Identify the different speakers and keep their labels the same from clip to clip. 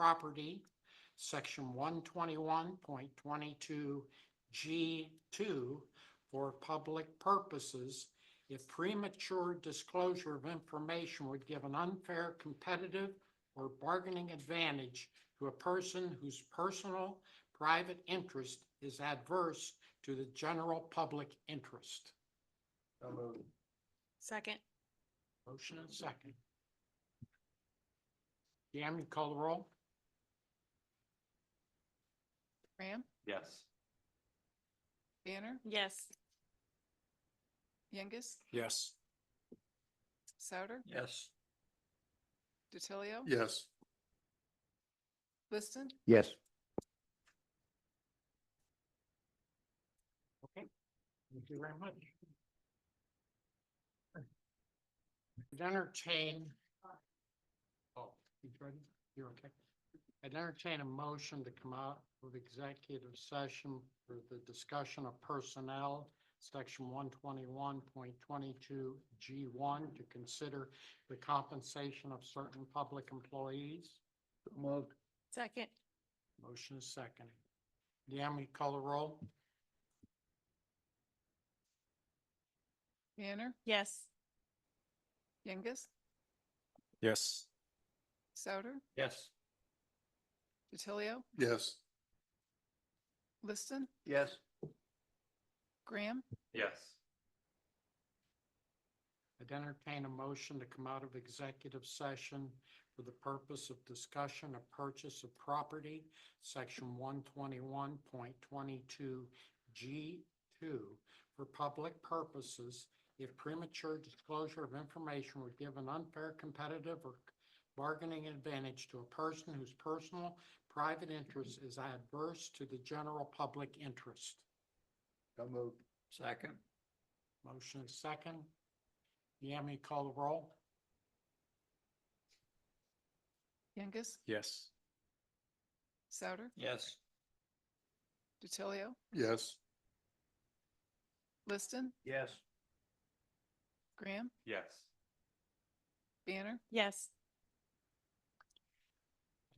Speaker 1: property, section one twenty-one point twenty-two G two for public purposes if premature disclosure of information would give an unfair competitive or bargaining advantage to a person whose personal private interest is adverse to the general public interest.
Speaker 2: So moved.
Speaker 3: Second.
Speaker 1: Motion and second. Yam, you call the roll?
Speaker 4: Graham,
Speaker 2: Yes.
Speaker 4: Banner,
Speaker 3: Yes.
Speaker 4: Youngus,
Speaker 5: Yes.
Speaker 4: Souter,
Speaker 2: Yes.
Speaker 4: DiTilio.
Speaker 5: Yes.
Speaker 4: Liston,
Speaker 6: yes,
Speaker 1: Thank you very much. I'd entertain. Oh, you ready? You're okay. I'd entertain a motion to come out of executive session for the discussion of personnel, section one twenty-one point twenty-two G one, to consider the compensation of certain public employees.
Speaker 2: Moved.
Speaker 3: Second.
Speaker 1: Motion is second. Yami, call the roll?
Speaker 4: Banner,
Speaker 3: Yes.
Speaker 4: Youngus,
Speaker 5: Yes.
Speaker 4: Souter,
Speaker 2: Yes.
Speaker 4: DiTilio,
Speaker 5: Yes.
Speaker 4: Liston,
Speaker 2: Yes.
Speaker 4: Graham,
Speaker 2: Yes.
Speaker 1: I'd entertain a motion to come out of executive session for the purpose of discussion of purchase of property, section one twenty-one point twenty-two G two, for public purposes if premature disclosure of information would give an unfair competitive or bargaining advantage to a person whose personal private interest is adverse to the general public interest.
Speaker 2: So moved. Second.
Speaker 1: Motion is second. Yami, call the roll?
Speaker 4: Youngus,
Speaker 5: Yes.
Speaker 4: Souter,
Speaker 2: Yes.
Speaker 4: DiTilio,
Speaker 5: Yes.
Speaker 4: Liston,
Speaker 2: Yes.
Speaker 4: Graham,
Speaker 2: Yes.
Speaker 4: Banner,
Speaker 3: Yes.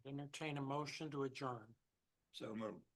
Speaker 1: Entertain a motion to adjourn.
Speaker 2: So moved.